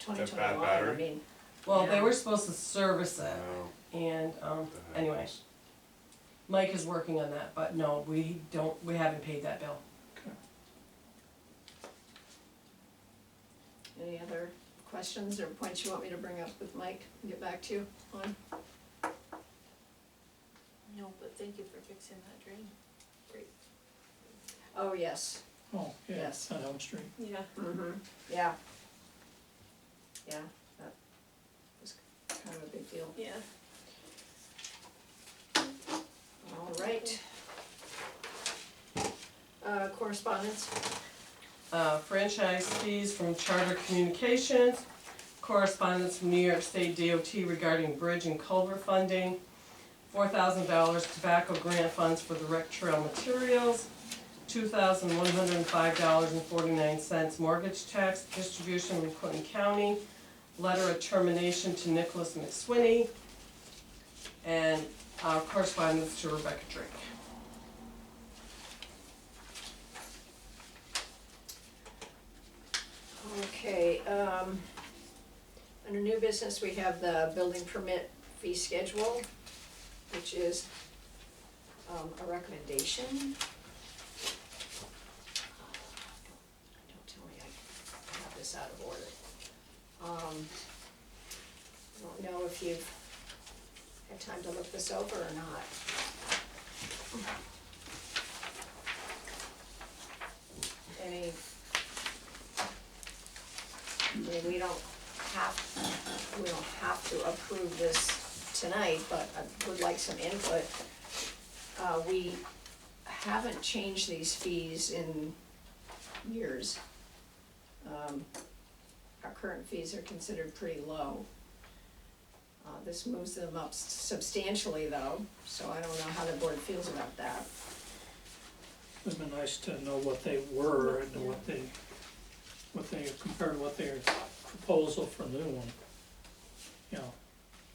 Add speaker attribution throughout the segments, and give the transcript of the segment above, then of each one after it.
Speaker 1: twenty
Speaker 2: that
Speaker 1: twenty-one, I
Speaker 2: battery?
Speaker 1: mean,
Speaker 3: Well, they
Speaker 1: Yeah.
Speaker 3: were supposed to service
Speaker 2: No,
Speaker 3: it, and, um,
Speaker 2: what the heck?
Speaker 3: anyway, Mike is working on that, but no, we don't, we haven't paid that bill.
Speaker 1: any other questions or points you want me to bring up with Mike and get back to you on?
Speaker 4: No, but thank you for fixing that drain.
Speaker 1: Oh, yes,
Speaker 5: Oh, yeah,
Speaker 1: Yes.
Speaker 5: on Elm Street.
Speaker 4: Yeah.
Speaker 1: mm-hmm, yeah. Yeah, that was kind of a big deal.
Speaker 4: Yeah.
Speaker 1: All right. Uh, correspondence,
Speaker 3: Uh, franchise fees from Charter Communications, correspondence from New York State DOT regarding bridge and culvert funding, four thousand dollars tobacco grant funds for the rec trail materials, two thousand one hundred and five dollars and forty-nine cents mortgage tax distribution from Clinton County, letter of termination to Nicholas McSwinney, and uh, correspondence to Rebecca Drake.
Speaker 1: okay, um, under new business, we have the building permit fee schedule, which is, um, a recommendation. Uh, Don't tell me I have this out of order. Um, I don't know if you've had time to look this over or not. Any I mean, we don't have, we don't have to approve this tonight, but I would like some input. Uh, we haven't changed these fees in years. Um, our current fees are considered pretty low. Uh, this moves them up substantially though, so I don't know how the board feels about that.
Speaker 5: Would've been nice to know what they were and what they, what they, compared to what their proposal for the new one. You know,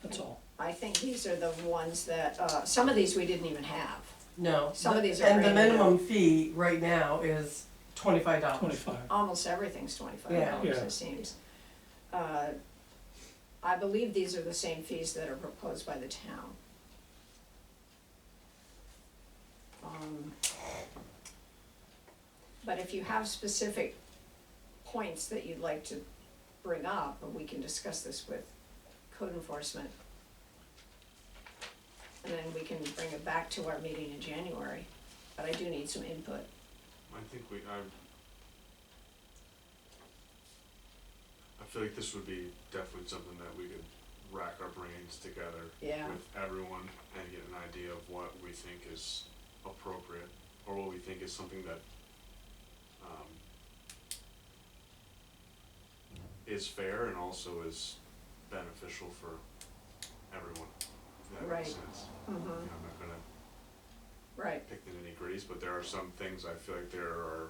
Speaker 5: that's all.
Speaker 1: I think these are the ones that, uh, some of these we didn't even have.
Speaker 3: No.
Speaker 1: Some of these are
Speaker 3: And the
Speaker 1: brand new.
Speaker 3: minimum fee right now is twenty-five dollars.
Speaker 5: Twenty-five.
Speaker 1: almost everything's twenty-five
Speaker 3: Yeah.
Speaker 1: dollars,
Speaker 5: Yeah.
Speaker 1: it seems. Uh, I believe these are the same fees that are proposed by the town. Um, But if you have specific points that you'd like to bring up, we can discuss this with code enforcement. And then we can bring it back to our meeting in January, but I do need some input.
Speaker 2: I think we, I. I feel like this would be definitely something that we could rack our brains together
Speaker 1: Yeah.
Speaker 2: with everyone and get an idea of what we think is appropriate or what we think is something that um, is fair and also is beneficial for everyone. If that
Speaker 1: Right.
Speaker 2: makes sense. You
Speaker 1: Mm-hmm,
Speaker 2: know, I'm not gonna
Speaker 1: right.
Speaker 2: pick the nitty gritties, but there are some things I feel like there are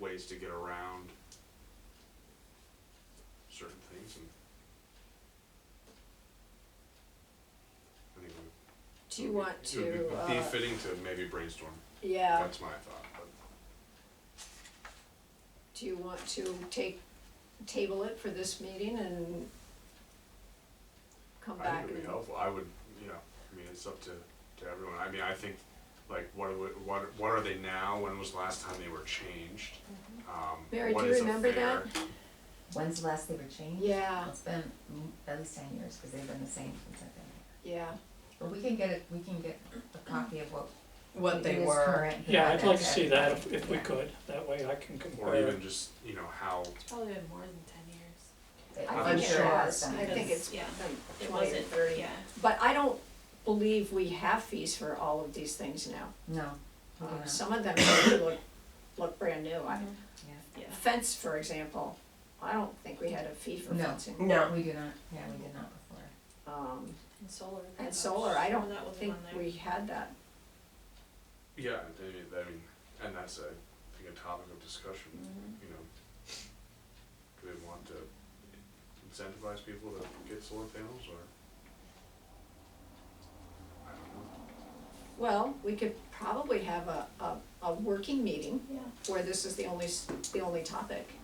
Speaker 2: ways to get around certain things and I think we-
Speaker 1: Do you want
Speaker 2: it would be-
Speaker 1: to,
Speaker 2: Be
Speaker 1: uh,
Speaker 2: fitting to maybe brainstorm,
Speaker 1: yeah,
Speaker 2: that's my thought, but
Speaker 1: do you want to take, table it for this meeting and come
Speaker 2: I
Speaker 1: back
Speaker 2: think it'd be
Speaker 1: and,
Speaker 2: helpful, I would, you know, I mean, it's up to, to everyone, I mean, I think, like, what, are- what, what are they now, when was the last time they were changed? Um,
Speaker 1: Mm-hmm. Mary,
Speaker 2: what
Speaker 1: do you
Speaker 2: is a
Speaker 1: remember
Speaker 2: fair-
Speaker 6: When's the last they were changed?
Speaker 1: yeah,
Speaker 6: It's been mm, at least ten years, cause they've been the same since I've been here.
Speaker 1: yeah,
Speaker 6: But we can get it, we can get a copy of what.
Speaker 3: what they
Speaker 6: is
Speaker 3: were.
Speaker 6: current and
Speaker 5: Yeah,
Speaker 6: how
Speaker 5: I'd like to
Speaker 6: that's
Speaker 5: see that if, if we
Speaker 6: Yeah.
Speaker 5: could, that way I can
Speaker 2: Or
Speaker 5: compare.
Speaker 2: even just, you know, how
Speaker 4: It's probably been more than ten years.
Speaker 6: edited.
Speaker 1: I
Speaker 2: I'm
Speaker 1: think it
Speaker 3: sure.
Speaker 1: was, I
Speaker 4: Because,
Speaker 1: think it's
Speaker 4: yeah,
Speaker 1: like
Speaker 4: It
Speaker 1: twenty or
Speaker 4: wasn't,
Speaker 1: thirty.
Speaker 4: yeah.
Speaker 1: But I don't believe we have fees for all of these things now.
Speaker 6: No,
Speaker 4: Oh,
Speaker 6: we
Speaker 1: Uh,
Speaker 6: do not,
Speaker 1: Some of them really look, look brand new, I,
Speaker 6: yeah,
Speaker 4: Yeah.
Speaker 1: fence, for example, I don't think we had a fee for
Speaker 6: No.
Speaker 1: fencing.
Speaker 3: No,
Speaker 6: we do not, yeah, we did not before.
Speaker 1: Um,
Speaker 4: And solar.
Speaker 1: and solar, I don't
Speaker 4: That wasn't
Speaker 1: think
Speaker 4: on there.
Speaker 1: we had that,
Speaker 2: Yeah, I mean, I mean, and that's a, I think a topic of discussion, you know. Do we want to incentivize people to get solar panels or? I don't know.
Speaker 1: well, we could probably have a, a, a working meeting
Speaker 4: Yeah.
Speaker 1: where this is the only, s- the only topic.